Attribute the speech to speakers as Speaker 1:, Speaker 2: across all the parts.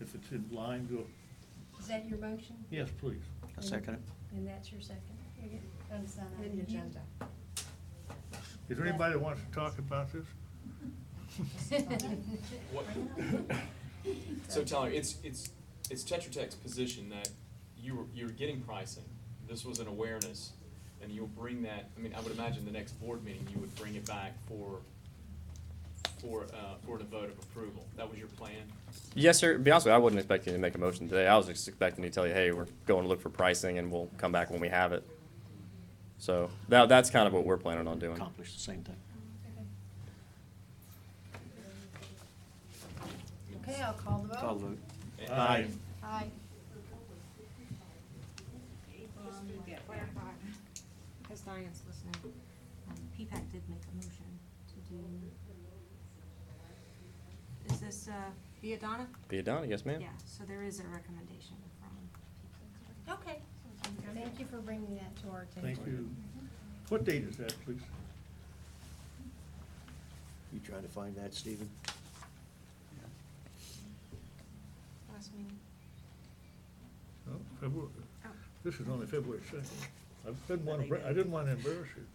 Speaker 1: if it's in line, go,
Speaker 2: Is that your motion?
Speaker 1: yes, please.
Speaker 3: I'll second it.
Speaker 2: And that's your second?
Speaker 4: Consent on
Speaker 2: And
Speaker 4: the
Speaker 2: you-
Speaker 4: agenda.
Speaker 1: Is there anybody that wants to talk about this?
Speaker 5: What- So Tyler, it's, it's, it's Tetra Tech's position that you were, you're getting pricing. This was an awareness and you'll bring that, I mean, I would imagine the next board meeting, you would bring it back for, for, uh, for the vote of approval. That was your plan?
Speaker 6: Yes, sir. To Be honest with you, I wasn't expecting you to make a motion today. I was just expecting you to tell you, hey, we're going to look for pricing and we'll come back when we have it. So that, that's kind of what we're planning on doing.
Speaker 3: Accomplish the same thing.
Speaker 4: Okay, I'll call the
Speaker 3: Call
Speaker 4: vote.
Speaker 3: vote.
Speaker 5: And-
Speaker 1: Aye.
Speaker 4: Aye.
Speaker 7: Just to clarify, because Diane's listening, um, PPAC did make a motion to do, is this uh, Viadana?
Speaker 6: Be it done, yes, ma'am?
Speaker 7: Yeah, so there is a recommendation from PPAC.
Speaker 2: Okay,
Speaker 7: Okay.
Speaker 2: thank you for bringing that to our attention.
Speaker 1: Thank you.
Speaker 2: Mm-hmm.
Speaker 1: What date is that, please?
Speaker 3: You trying to find that, Stephen?
Speaker 7: Last meeting.
Speaker 1: Oh, February,
Speaker 7: Oh.
Speaker 1: this is only February second. I didn't want to, I didn't want to embarrass you.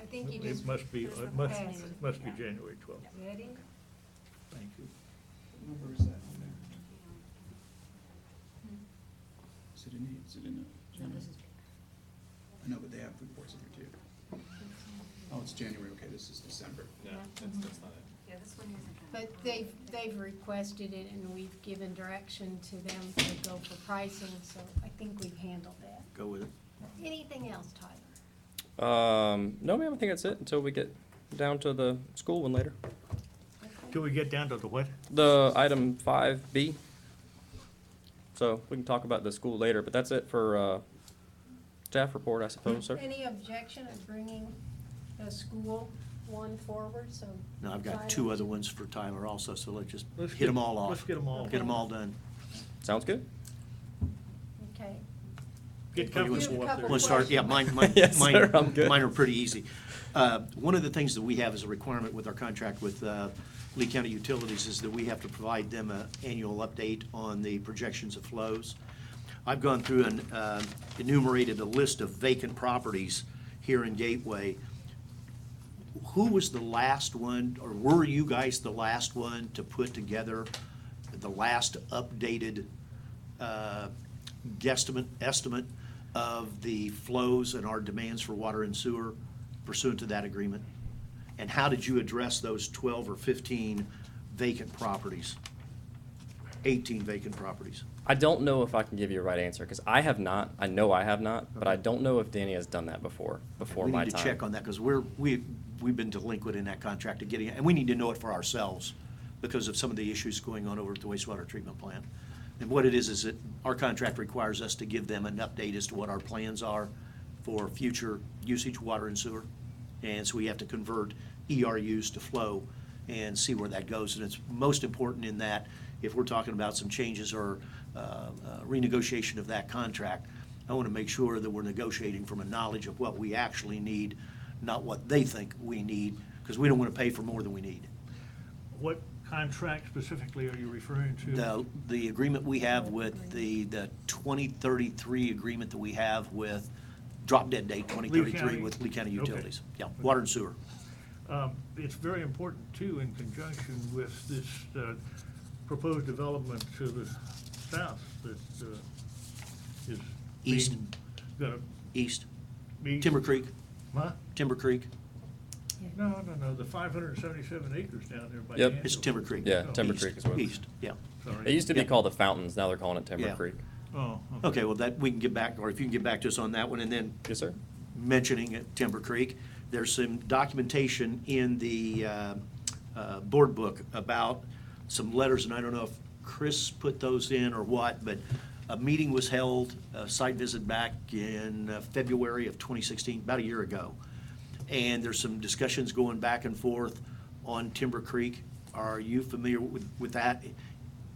Speaker 4: I think you just,
Speaker 1: It must be,
Speaker 7: it was the
Speaker 1: it must,
Speaker 7: last
Speaker 1: it must be
Speaker 7: meeting.
Speaker 1: January twelfth.
Speaker 4: ready?
Speaker 1: Thank you.
Speaker 8: number is that on there? Is it in, is it in the?
Speaker 7: No, this is-
Speaker 8: I know, but they have reports in there too. Oh, it's January, okay, this is December.
Speaker 5: No, that's, that's not it.
Speaker 7: Yeah, this one isn't.
Speaker 2: But they've, they've requested it and we've given direction to them to go for pricing, so I think we've handled that.
Speaker 3: Go with it.
Speaker 2: Anything else, Tyler?
Speaker 6: Um, no, ma'am, I think that's it until we get down to the school one later.
Speaker 1: Till we get down to the what?
Speaker 6: The item five B. So we can talk about the school later, but that's it for, uh, staff report, I suppose, sir.
Speaker 2: Any objection of bringing the school one forward, so?
Speaker 3: No, I've got two other ones for Tyler also, so let's just
Speaker 1: Let's
Speaker 3: hit them
Speaker 1: get-
Speaker 3: all off.
Speaker 1: let's get 'em all.
Speaker 3: Get them all done.
Speaker 6: Sounds good?
Speaker 2: Okay.
Speaker 1: Get
Speaker 3: Or you wanna-
Speaker 1: comfortable up there.
Speaker 3: wanna start? Yeah, mine, mine,
Speaker 6: Yes,
Speaker 3: mine-
Speaker 6: sir, I'm good.
Speaker 3: mine are pretty easy. Uh, One of the things that we have as a requirement with our contract with uh, Lee County Utilities is that we have to provide them an annual update on the projections of flows. I've gone through and uh, enumerated a list of vacant properties here in Gateway. Who was the last one, or were you guys the last one to put together the last updated uh, guesstimate, estimate of the flows and our demands for water and sewer pursuant to that agreement? And how did you address those 12 or 15 vacant properties? 18 vacant properties?
Speaker 6: I don't know if I can give you a right answer because I have not. I know I have not, but I
Speaker 3: Okay.
Speaker 6: don't know if Danny has done that before. Before my
Speaker 3: We need to
Speaker 6: time.
Speaker 3: check on that, because we're, we, we've been delinquent in that contract of getting, and we need to know it for ourselves because of some of the issues going on over at the wastewater treatment plant. And what it is, is that our contract requires us to give them an update as to what our plans are for future usage, water and sewer. And so we have to convert ERUs to flow and see where that goes. And it's most important in that, if we're talking about some changes or uh, uh, renegotiation of that contract, I want to make sure that we're negotiating from a knowledge of what we actually need, not what they think we need, because we don't want to pay for more than we need.
Speaker 1: What contract specifically are you referring to?
Speaker 3: The, the agreement we have with the, the 2033 agreement that we have with, drop dead date 2033
Speaker 1: County?
Speaker 3: with Lee County
Speaker 1: Okay.
Speaker 3: Utilities. Yeah, water and sewer.
Speaker 1: Um, It's very important, too, in conjunction with this uh, proposed development to the south that uh, is
Speaker 3: East.
Speaker 1: being gonna
Speaker 3: East,
Speaker 1: be.
Speaker 3: Timber Creek,
Speaker 1: Huh?
Speaker 3: Timber Creek,
Speaker 1: No, no, no, the five hundred and seventy-seven acres down there by.
Speaker 6: Yep.
Speaker 1: Danville.
Speaker 3: it's Timber Creek.
Speaker 6: Yeah,
Speaker 1: Oh,
Speaker 6: Timber
Speaker 3: East,
Speaker 6: Creek as well.
Speaker 3: East, yeah.
Speaker 1: sorry.
Speaker 6: It used to be
Speaker 3: Yeah.
Speaker 6: called the Fountains. Now they're calling it Timber
Speaker 3: Yeah.
Speaker 6: Creek.
Speaker 1: Oh.
Speaker 3: Okay, well, that, we can get back, or if you can get back to us on that one, and then
Speaker 6: Yes, sir.
Speaker 3: mentioning at Timber Creek. There's some documentation in the uh, uh, board book about some letters, and I don't know if Chris put those in or what, but a meeting was held, a site visit back in uh, February of 2016, about a year ago. And there's some discussions going back and forth on Timber Creek. Are you familiar with, with that?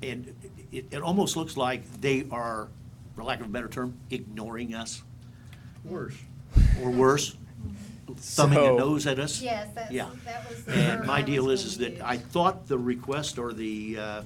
Speaker 3: And it, it almost looks like they are, for lack of a better term, ignoring us
Speaker 1: Worse.
Speaker 3: or worse, thumbing a
Speaker 6: So-
Speaker 3: nose at us.
Speaker 4: Yes, that's,
Speaker 3: Yeah.
Speaker 4: that was the term
Speaker 3: And my
Speaker 4: I was
Speaker 3: deal is,
Speaker 4: gonna
Speaker 3: is that
Speaker 4: use.
Speaker 3: I thought the request or the uh,